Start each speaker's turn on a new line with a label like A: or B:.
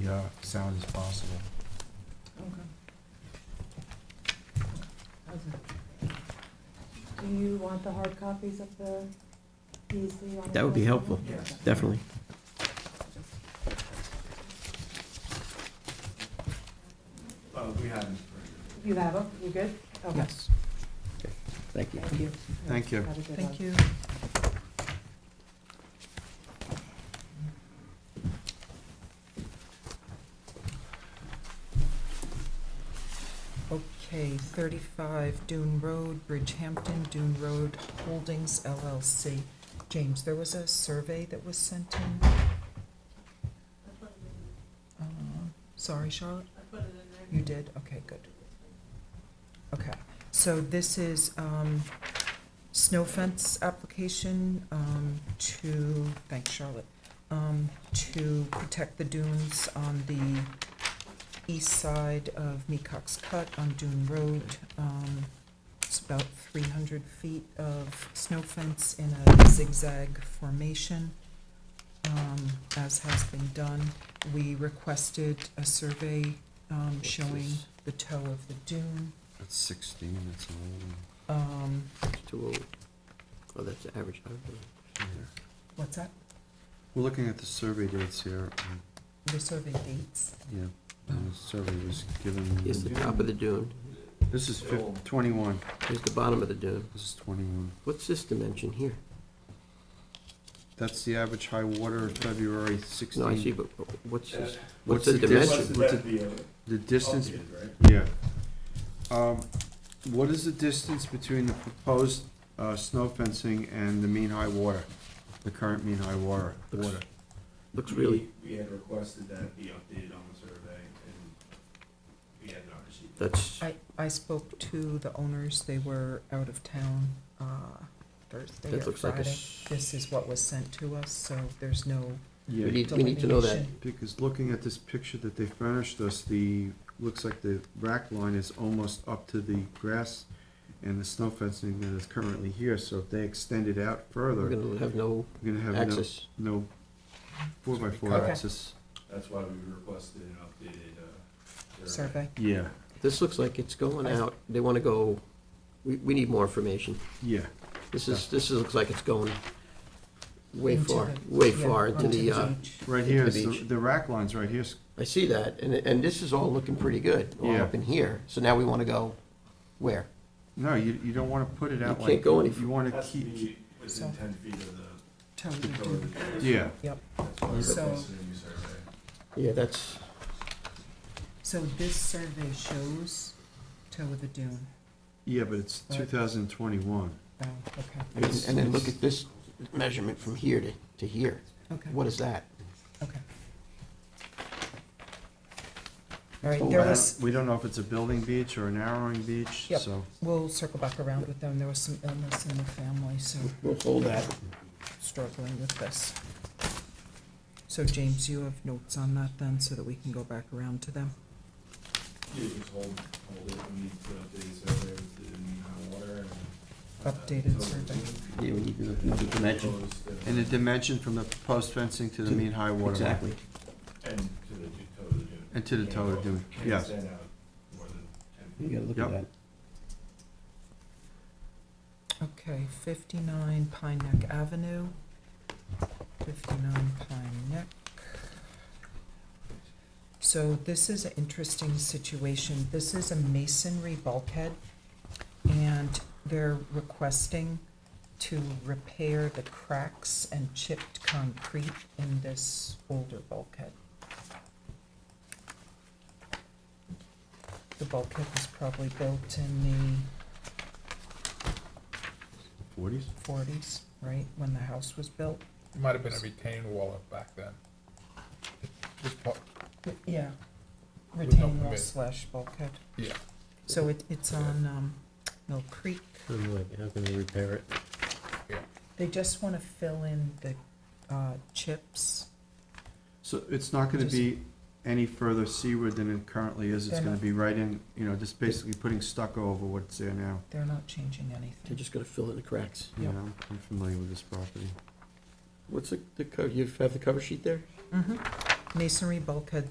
A: be uh, sound as possible.
B: Do you want the hard copies of the PEC? on the
C: That would be helpful,
B: Yes.
C: definitely.
D: Uh, we haven't.
B: You have them, you good? Okay.
E: Yes,
C: Thank you.
B: Thank you.
A: Thank you.
B: Have a good
E: thank
B: one.
E: you. Okay, 35 Dune Road, Bridgehampton, Dune Road Holdings LLC. James, there was a survey that was sent in. Uh, Sorry, Charlotte? I put it in there. You did? Okay, good. Okay, so this is, um, snow fence application um, to, thanks Charlotte, um, to protect the dunes on the east side of Mecox Cut on Dune Road. Um, It's about 300 feet of snow fence in a zigzag formation, um, as has been done. We requested a survey um, showing the toe of the dune.
A: That's 16, that's an old one.
E: Um,
C: It's too old. Oh, that's the average. I don't know.
A: Here.
E: What's that?
A: We're looking at the survey dates here. um,
E: The survey dates.
A: Yeah, and the survey was given,
C: Here's the top of the dune,
A: this is fif- 21,
C: here's the bottom of the dune.
A: this is 21.
C: What's this dimension here?
A: That's the average high water, February 16.
C: No, I see, but what's this,
A: What's
C: what's the
A: the
D: What's
C: dimension?
A: distance?
D: the
A: What's
D: depth of the,
A: The distance,
D: of the- right?
C: Oh,
A: yeah. Um, What is the distance between the proposed uh, snow fencing and the mean high water, the current mean high water?
C: Looks-
A: water?
C: Looks really,
D: We we had requested that be updated on the survey, and we had not received that.
C: that's,
E: I, I spoke to the owners, they were out of town, uh, Thursday or
C: that looks like a,
E: Friday.
C: s-
E: This is what was sent to us, so there's no
C: we
A: Yeah,
C: need, we need to know that.
E: delineation.
A: because looking at this picture that they furnished us, the, looks like the rack line is almost up to the grass and the snow fencing that is currently here, so if they extend it out
C: We're
A: further,
C: gonna have no
A: we're gonna have no,
C: access.
A: no four-by-four
E: Okay.
A: access.
D: That's why we requested an updated, uh,
E: survey.
D: survey.
A: Yeah,
C: This looks like it's going out, they wanna go, we, we need more information.
A: yeah.
C: This is, this is, looks like it's going way
E: into
C: far,
E: the-
C: way
E: yeah,
C: far into
E: onto
C: the, uh,
E: beach.
A: Right
C: Into
A: here
C: the
A: is, the-
C: beach.
A: the rack line's right here, s-
C: I see that, and, and this is all looking pretty good, all
A: Yeah.
C: up in here. So now we wanna go where?
A: no, you, you don't wanna put it out
C: You
A: like.
C: can't go any
A: You wanna
D: Has to
A: keep,
D: be within ten feet of the
E: Toe of the
D: toe of
E: dune.
D: the dune.
A: yeah,
D: That's why we
E: So-
D: requested a new survey.
C: Yeah, that's,
E: So this survey shows toe of the dune.
A: yeah, but it's two thousand twenty-one.
E: Oh, okay,
C: and and then look at this measurement from here to, to here.
E: okay,
C: What is that?
E: okay. All right,
C: Oh,
A: Well,
E: there
A: I
E: was,
A: don't- We don't know if it's a building beach or a narrowing beach,
E: Yep.
A: so.
E: we'll circle back around with them. There was some illness in the family, so
C: We'll hold that.
E: struggling with this. So James, you have notes on that then, so that we can go back around to them?
D: You just hold, hold it, we need to update the survey with the mean high water and. uh,
E: Updated
D: so we
E: survey.
C: Yeah, we need to know the dimension.
D: proposed, uh,
A: And the dimension from the proposed fencing to the mean high water. line.
C: Exactly.
D: And to the ju- toe of the dune.
A: And to the toe of the dune,
D: Can't
A: yes.
D: stand out more than 10 feet.
C: You gotta look at that.
E: Okay, fifty-nine Pine Neck Avenue, fifty-nine Pine Neck. So this is an interesting situation. This is a masonry bulkhead, and they're requesting to repair the cracks and chipped concrete in this older bulkhead. The bulkhead was probably built in the
A: Forties?
E: forties, right, when the house was built?
F: It might have been a retained wall up back then. This part,
E: Yeah.
F: no
E: Retaining wall
F: permit.
E: slash bulkhead.
F: yeah.
E: So it, it's on, um, Mill Creek.
C: How can we repair it?
E: They just wanna fill in the, uh, chips.
A: So it's not gonna be any further seaward than it currently is, it's
E: They're
A: gonna
E: not-
A: be right in, you know, just basically putting stucco over what's there now.
E: They're not changing
C: They're
E: anything.
C: just gonna fill in the cracks.
A: You
E: Yep.
A: know, I'm familiar with this property.
C: What's the, the, co- you have the cover sheet there?
E: Mhm. Mm-hmm. Masonry bulkhead